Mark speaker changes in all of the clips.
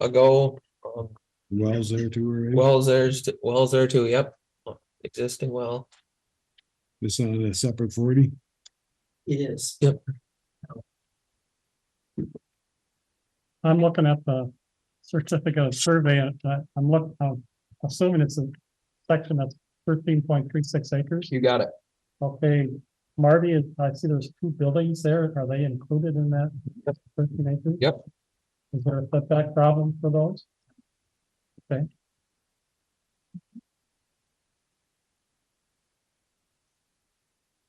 Speaker 1: ago. Um,
Speaker 2: Wells there too, already.
Speaker 1: wells there's, wells there too, yep, existing well.
Speaker 2: It's on a separate forty.
Speaker 3: It is.
Speaker 1: Yep.
Speaker 4: I'm looking at the certificate of survey and uh, I'm look, I'm assuming it's a section that's thirteen point three six acres.
Speaker 1: You got it.
Speaker 4: Okay, Marty, I see there's two buildings there. Are they included in that thirteen acres?
Speaker 1: Yep.
Speaker 4: Is there a setback problem for those? Okay.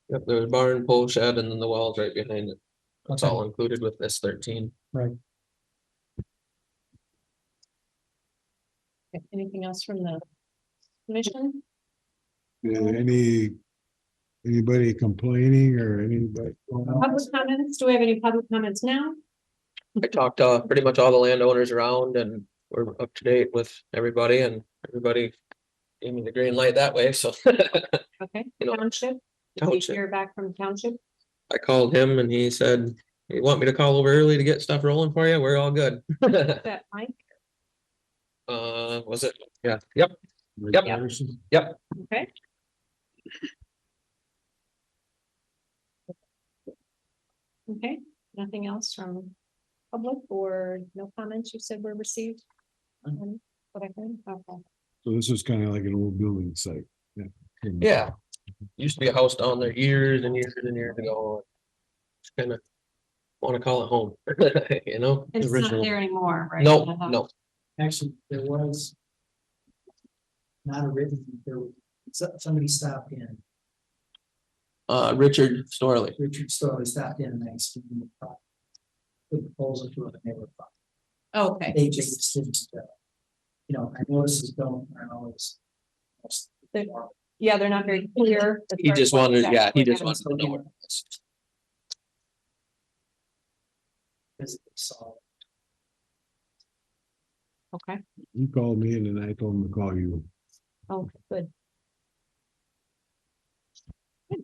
Speaker 1: Yep, there's barn, pole shed, and then the wells right behind it. That's all included with this thirteen.
Speaker 5: Okay, Anything else from the commission?
Speaker 2: Yeah, any, anybody complaining or anybody?
Speaker 5: Public comments? Do we have any public comments now?
Speaker 1: I talked to pretty much all the landowners around and we're up to date with everybody and everybody gave me the green light that way, so.
Speaker 5: Okay,
Speaker 1: You know,
Speaker 5: township? Did we
Speaker 1: Township,
Speaker 5: hear back from township?
Speaker 1: I called him and he said, you want me to call over early to get stuff rolling for you? We're all good.
Speaker 5: That Mike?
Speaker 1: Uh, was it? Yeah, yep, Yep. Yep.
Speaker 5: Okay. Okay, nothing else from public or no comments you said were received? Um, what I heard? Okay.
Speaker 2: So this is kind of like an old building site. Yeah.
Speaker 1: yeah. Used to be a house down there years and years and years ago. Just Kinda wanna call it home, you know?
Speaker 5: It's not there anymore, right?
Speaker 1: No,
Speaker 5: Uh-huh.
Speaker 1: no,
Speaker 3: Actually, there was. Not a written, there was, so- somebody stopped in,
Speaker 1: uh, Richard Storley.
Speaker 3: Richard Story stopped in and asked him. the pro- The proposal to it, and they were, fine.
Speaker 5: Okay,
Speaker 3: they just didn't, uh, you know, I notices don't, I always.
Speaker 5: They- yeah, they're not very clear. as
Speaker 1: He
Speaker 5: far as
Speaker 1: just
Speaker 5: what
Speaker 1: wanted, yeah,
Speaker 5: exactly
Speaker 1: he just
Speaker 5: happens.
Speaker 1: wanted to know where. it is.
Speaker 3: Because they saw.
Speaker 5: Okay,
Speaker 2: You called me and then I told him to call you.
Speaker 5: oh, good. Good.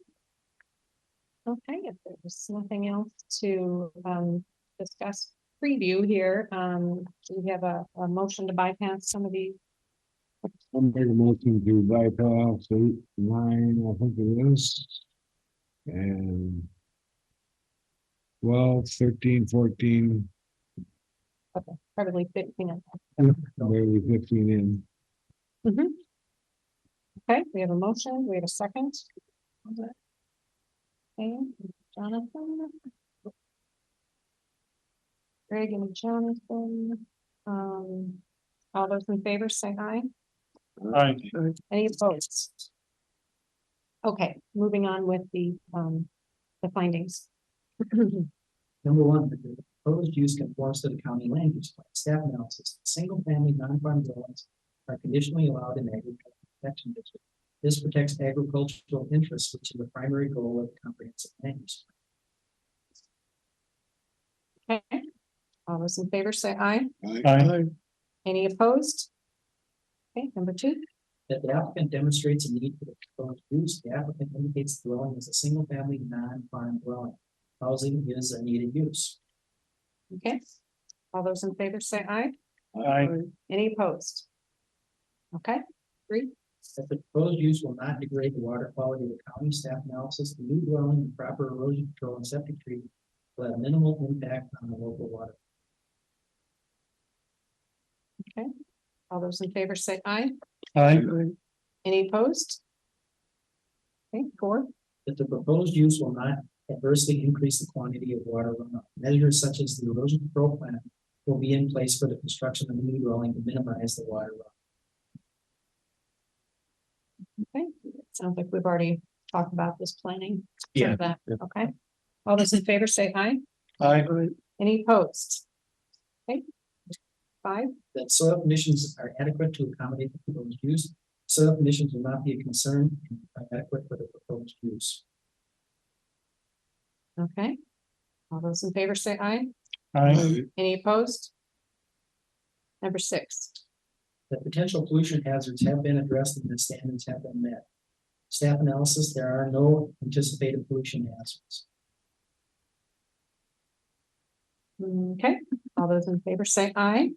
Speaker 5: Okay, if there's nothing else to um discuss preview here, um, do we have a a motion to bypass some of the
Speaker 2: I'm making a motion to bypass eight, nine, I think it is. And. Well, thirteen, fourteen,
Speaker 5: probably fifteen. of them?
Speaker 2: maybe fifteen in.
Speaker 5: Okay, we have a motion, we have a second. Okay, Jonathan. Greg and Jonathan, um, all those in favor say aye.
Speaker 4: I,
Speaker 5: Any opposed? Okay, moving on with the, um, the findings.
Speaker 3: Number one, that the proposed use conforms to the county land use plan. Staff analysis, single-family non-farm dwellings are conditionally allowed in agricultural protection district. This protects agricultural interests, which is the primary goal of the comprehensive land use.
Speaker 5: Okay, all those in favor say aye.
Speaker 4: I,
Speaker 5: Any opposed? Okay, number two,
Speaker 3: plan. That the applicant demonstrates a need for the proposed use, the applicant indicates the dwelling is a single-family non-farm dwelling. Housing is a needed use.
Speaker 5: okay. All those in favor say aye.
Speaker 4: I,
Speaker 5: Any opposed? Okay, three,
Speaker 3: That the proposed use will not degrade the water quality of the county staff analysis, the new dwelling and proper erosion control and septic treatment will have minimal impact on the local water.
Speaker 5: all those in favor say aye.
Speaker 4: I,
Speaker 5: Any opposed? Okay, four,
Speaker 3: That the proposed use will not adversely increase the quantity of water runoff. Measures such as the erosion control plan will be in place for the construction of the new dwelling to minimize the water runoff.
Speaker 5: okay. Sounds like we've already talked about this planning.
Speaker 1: Yeah,
Speaker 5: That,
Speaker 1: yeah.
Speaker 5: Okay, all those in favor say aye.
Speaker 4: I,
Speaker 5: Any opposed? Okay. Five,
Speaker 3: That soil conditions are adequate to accommodate the proposed use. Soil conditions will not be a concern and are adequate for the proposed use.
Speaker 5: okay. All those in favor say aye.
Speaker 4: I,
Speaker 5: Any opposed? Number six,
Speaker 3: that potential pollution hazards have been addressed and the standards have been met. Staff analysis, there are no anticipated pollution hazards.
Speaker 5: okay. All those in favor say aye.